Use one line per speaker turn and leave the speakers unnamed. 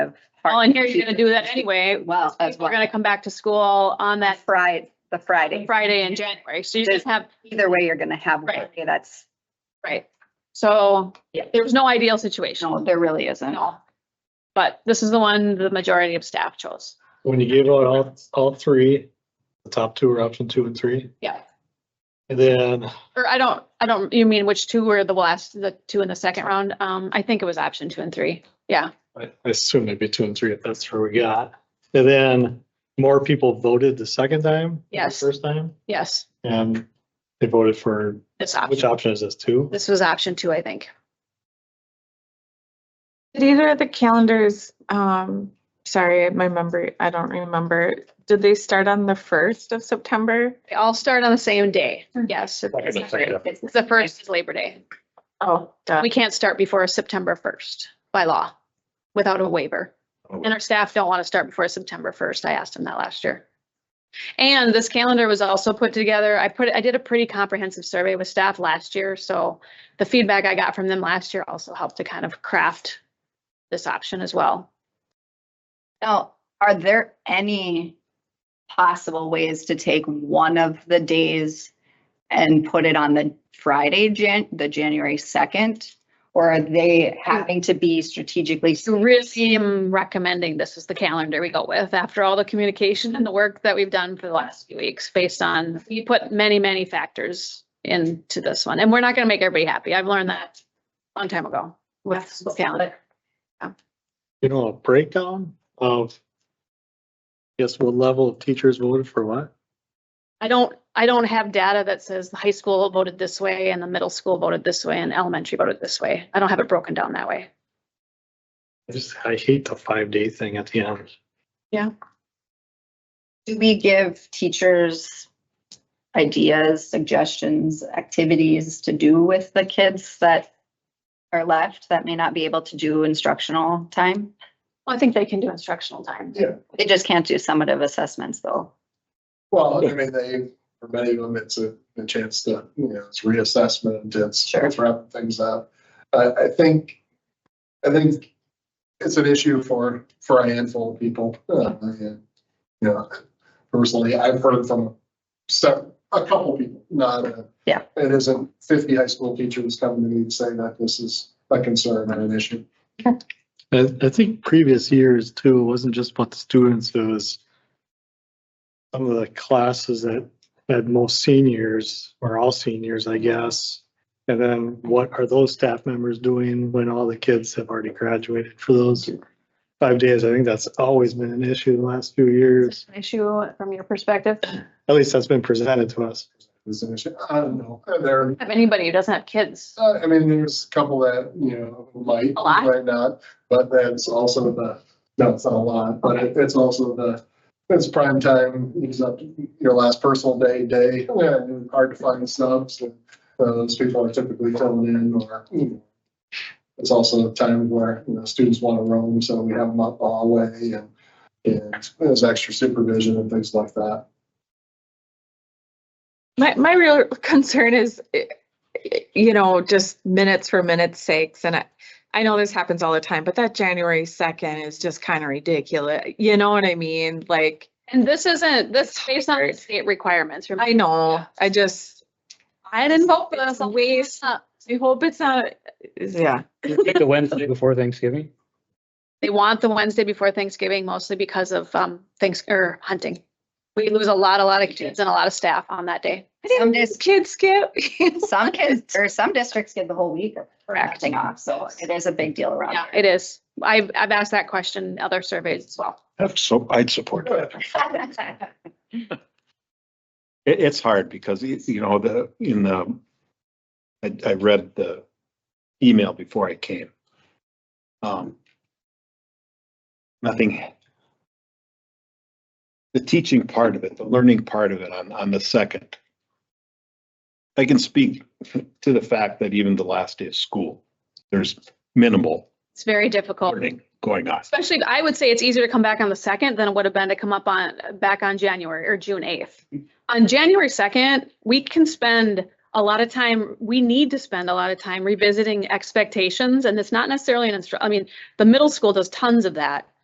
of.
Well, and here you're gonna do that anyway.
Well, as
People are
well,
gonna come back to school on that
Friday, the Friday,
Friday in January. So you just have,
either way, you're gonna have one
Right.
day that's,
right. So
Yeah.
there's no ideal situation.
no, there really isn't.
No. But this is the one the majority of staff chose.
When you gave out all, all three, the top two were option two and three.
Yeah.
And then,
Or I don't, I don't, you mean which two were the last, the two in the second round? Um, I think it was option two and three. Yeah.
I I assume it'd be two and three if that's where we got. And then more people voted the second time? than the
Yes.
First time,
Yes.
and they voted for,
This
which
option.
option is this, two?
This was option two, I think.
Did either of the calendars, um, sorry, my memory, I don't remember, did they start on the first of September?
They all start on the same day.
Hmm.
Yes.
Second and second.
It's The first is Labor Day.
Oh, duh.
We can't start before September first by law without a waiver.
Oh.
And our staff don't want to start before September first. I asked them that last year. And this calendar was also put together. I put, I did a pretty comprehensive survey with staff last year, so the feedback I got from them last year also helped to kind of craft this option as well.
Now, are there any possible ways to take one of the days and put it on the Friday, Jan, the January second? Or are they
Hmm.
having to be strategically?
So Really am recommending this is the calendar we go with after all the communication and the work that we've done for the last few weeks based on, we put many, many factors into this one. And we're not going to make everybody happy. I've learned that a long time ago with the calendar.
You know, a breakdown of, guess what level of teachers voted for what?
I don't, I don't have data that says the high school voted this way and the middle school voted this way and elementary voted this way. I don't have it broken down that way.
I just, I hate the five day thing at the end.
Do we give teachers ideas, suggestions, activities to do with the kids that are left that may not be able to do instructional time?
Well, I think they can do instructional time.
Yeah,
They just can't do summative assessments though.
well, I mean, they, for many of them, it's a, a chance to, you know, it's reassessment, it's
Sure.
it's wrapping things up. I, I think, I think it's an issue for, for a handful of people. Uh, and, You know, personally, I've heard from some, a couple people, not a.
Yeah.
It isn't fifty high school teachers coming to me and saying that this is a concern and an issue.
I, I think previous years too, it wasn't just about the students, it was some of the classes that had most seniors, or all seniors, I guess. And then what are those staff members doing when all the kids have already graduated for those five days? I think that's always been an issue the last few years.
Is it an issue from your perspective?
At least that's been presented to us.
It's an issue. I don't know. There are
Have anybody who doesn't have kids?
Uh, I mean, there's a couple that, you know, might,
A lot?
might not, but that's also the, no, it's not a lot, but it- it's also the, it's prime time, use up your last personal day, day, and hard to find subs, and those people are typically filling in, or, you know. It's also a time where, you know, students want to roam, so we have them up all way, and, and there's extra supervision and things like that.
My, my real concern is, eh, eh, you know, just minutes for minutes sakes, and I, I know this happens all the time, but that January second is just kind of ridiculous, you know what I mean? Like,
And this isn't, this is based on the state requirements. Remember,
I know, I just,
I didn't vote for this.
It's a waste. I hope it's not, yeah.
Pick the Wednesday before Thanksgiving.
They want the Wednesday before Thanksgiving mostly because of um thanks or hunting. We lose a lot, a lot of kids and a lot of staff on that day.
I didn't-
dis-
Kids skip.
Some kids, or some districts get the whole week of
Correct.
acting off, so it is a big deal around.
Yeah,
here.
it is. I've I've asked that question in other surveys as well.
So I'd support that. It, it's hard because, y- you know, the, in the, I, I read the email before I came. Um, Nothing. The teaching part of it, the learning part of it on, on the second. I can speak to the fact that even the last day of school, there's minimal
It's very difficult.
learning going on.
Especially, I would say it's easier to come back on the second than it would have been to come up on, back on January or June eighth. On January second, we can spend a lot of time, we need to spend a lot of time revisiting expectations and it's not necessarily an instru, I mean, the middle school does tons of that.